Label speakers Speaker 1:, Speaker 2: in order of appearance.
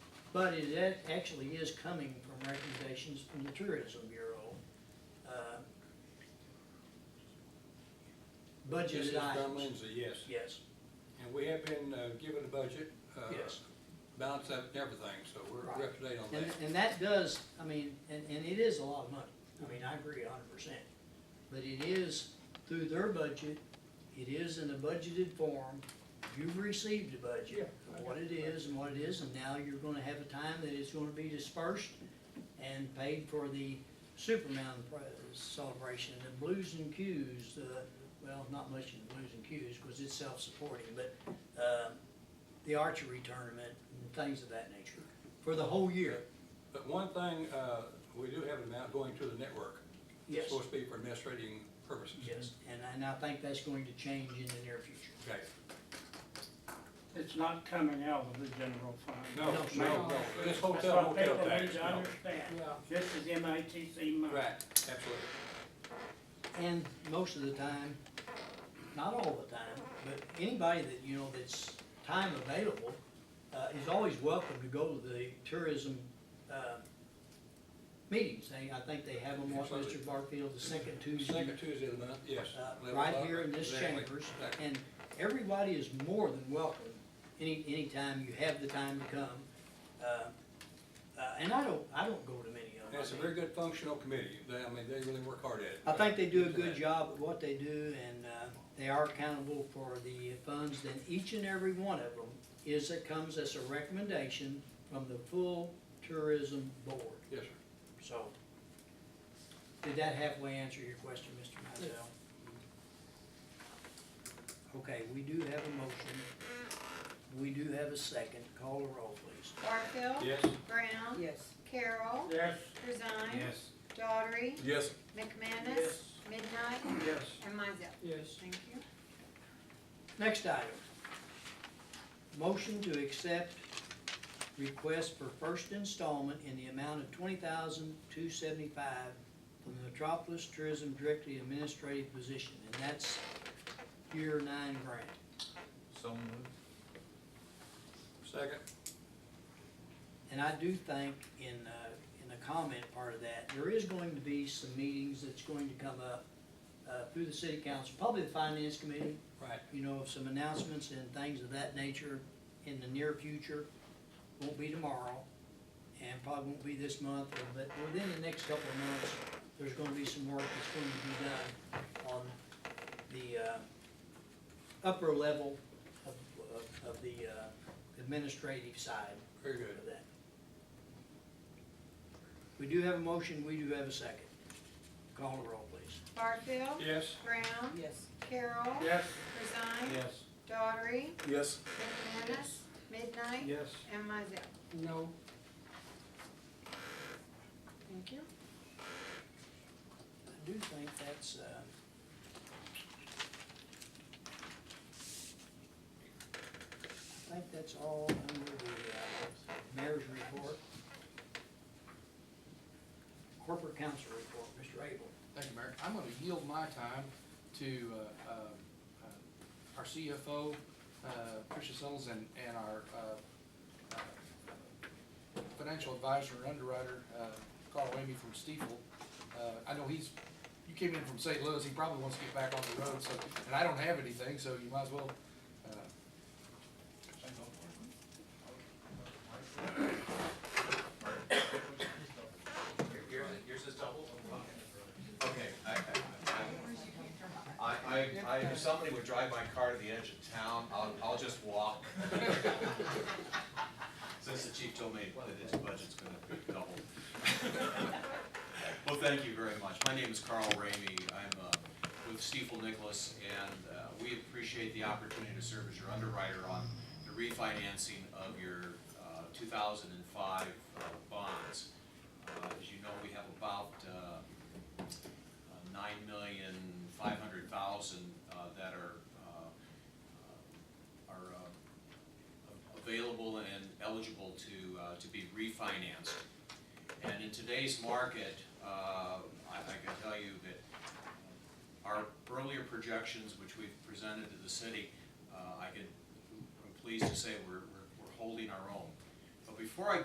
Speaker 1: But it ac- actually is coming from recommendations from the Tourism Bureau. uh,
Speaker 2: This is
Speaker 1: Budgeted
Speaker 2: John
Speaker 1: items,
Speaker 2: Lindsay, yes.
Speaker 1: yes,
Speaker 2: And we have been uh, given a budget. uh,
Speaker 1: yes.
Speaker 2: Balanced out and everything, so we're
Speaker 1: Right.
Speaker 2: we're up to date on
Speaker 1: And,
Speaker 2: that.
Speaker 1: and that does, I mean, and, and it is a lot of money, I mean, I agree a hundred percent. But it is through their budget, it is in a budgeted form, you've received a budget
Speaker 2: Yeah, I
Speaker 1: of what it is and what it is, and now you're gonna have a time that it's gonna be dispersed and paid for the Superman pro- celebration, the Blues and Qs, uh, well, not much in Blues and Qs, cause it's self-supporting, but, uh, the archery tournament and things of that nature, for the whole year,
Speaker 2: But one thing, uh, we do have an amount going to the network.
Speaker 1: yes.
Speaker 2: It's supposed to be for administrating purposes.
Speaker 1: Yes, and, and I think that's going to change in the near future.
Speaker 2: Okay.
Speaker 3: It's not coming out of the general fund.
Speaker 2: No,
Speaker 1: No,
Speaker 2: no,
Speaker 1: no.
Speaker 2: no. This
Speaker 3: That's
Speaker 2: hotel
Speaker 3: what
Speaker 2: motel
Speaker 3: people need
Speaker 2: tax,
Speaker 3: to
Speaker 2: no.
Speaker 3: understand. This is MITC money.
Speaker 2: Right, absolutely.
Speaker 1: And most of the time, not all the time, but anybody that, you know, that's time available, uh, is always welcome to go to the tourism, uh, meetings. They, I think they have them, what, Mr. Barfield, the second Tuesday,
Speaker 2: Second Tuesday of the month, yes.
Speaker 1: uh,
Speaker 2: Eleven
Speaker 1: right
Speaker 2: o'clock.
Speaker 1: here in this
Speaker 2: Exactly,
Speaker 1: chambers.
Speaker 2: exactly.
Speaker 1: And everybody is more than welcome, any, anytime you have the time to come. Uh, uh, and I don't, I don't go to many of them.
Speaker 2: That's a very good functional committee. They, I mean, they really work hard at it.
Speaker 1: I think they do a good job at what they do, and uh, they are accountable for the funds, then each and every one of them is, it comes as a recommendation from the full tourism board,
Speaker 2: Yes, sir.
Speaker 1: so. Did that halfway answer your question, Mr. Mizell? Okay, we do have a motion, we do have a second, call the roll, please.
Speaker 4: Barfield.
Speaker 2: Yes?
Speaker 4: Brown.
Speaker 5: Yes.
Speaker 4: Carroll.
Speaker 3: Yes,
Speaker 4: Corzine. Daughtry.
Speaker 2: Yes.
Speaker 4: McManus.
Speaker 3: Yes.
Speaker 4: Midnight.
Speaker 3: yes.
Speaker 4: And Mizell.
Speaker 3: Yes.
Speaker 4: Thank you.
Speaker 1: Next item. Motion to accept request for first installment in the amount of twenty thousand two seventy-five from the Metropolis Tourism Directory Administrative Position, and that's year nine grant.
Speaker 6: So moved.
Speaker 2: Second?
Speaker 1: And I do think in, uh, in the comment part of that, there is going to be some meetings that's going to come up, uh, through the city council, probably the finance committee,
Speaker 2: Right.
Speaker 1: you know, of some announcements and things of that nature in the near future. Won't be tomorrow, and probably won't be this month, but within the next couple of months, there's gonna be some work that's going to be done on the, uh, upper level of, of, of the, uh, administrative side
Speaker 2: Very good.
Speaker 1: of that. We do have a motion, we do have a second. Call the roll, please.
Speaker 4: Barfield.
Speaker 2: Yes?
Speaker 4: Brown.
Speaker 5: Yes.
Speaker 4: Carroll.
Speaker 3: Yes.
Speaker 4: Corzine.
Speaker 3: Yes.
Speaker 4: Daughtry.
Speaker 2: Yes.
Speaker 4: McManus. Midnight.
Speaker 3: Yes.
Speaker 4: And Mizell.
Speaker 5: No.
Speaker 4: Thank you.
Speaker 1: I do think that's, uh. I think that's all under the, uh, mayor's report. Corporate council report, Mr. Abel.
Speaker 7: Thank you, Mayor. I'm gonna yield my time to, uh, um, uh, our CFO, uh, Tricia Sills and, and our, uh, uh, financial advisor and underwriter, uh, Carl Ramey from Stiefel. Uh, I know he's, you came in from St. Louis, he probably wants to get back on the road, so, and I don't have anything, so you might as well, uh,
Speaker 6: Yours, yours is double? Okay, I, I- I, I, I, if somebody would drive my car to the edge of town, I'll, I'll just walk. Since the chief told me that his budget's gonna be double. Well, thank you very much. My name is Carl Ramey. I'm, uh, with Stiefel Nicholas, and, uh, we appreciate the opportunity to serve as your underwriter on the refinancing of your, uh, two thousand and five, uh, bonds. Uh, As you know, we have about uh, nine million, five hundred thousand that are, uh, are uh, available and eligible to, uh, to be refinanced. And in today's market, uh, I I can tell you that our earlier projections, which we've presented to the city, uh, I can, I'm pleased to say we're, we're- we're holding our own. But before I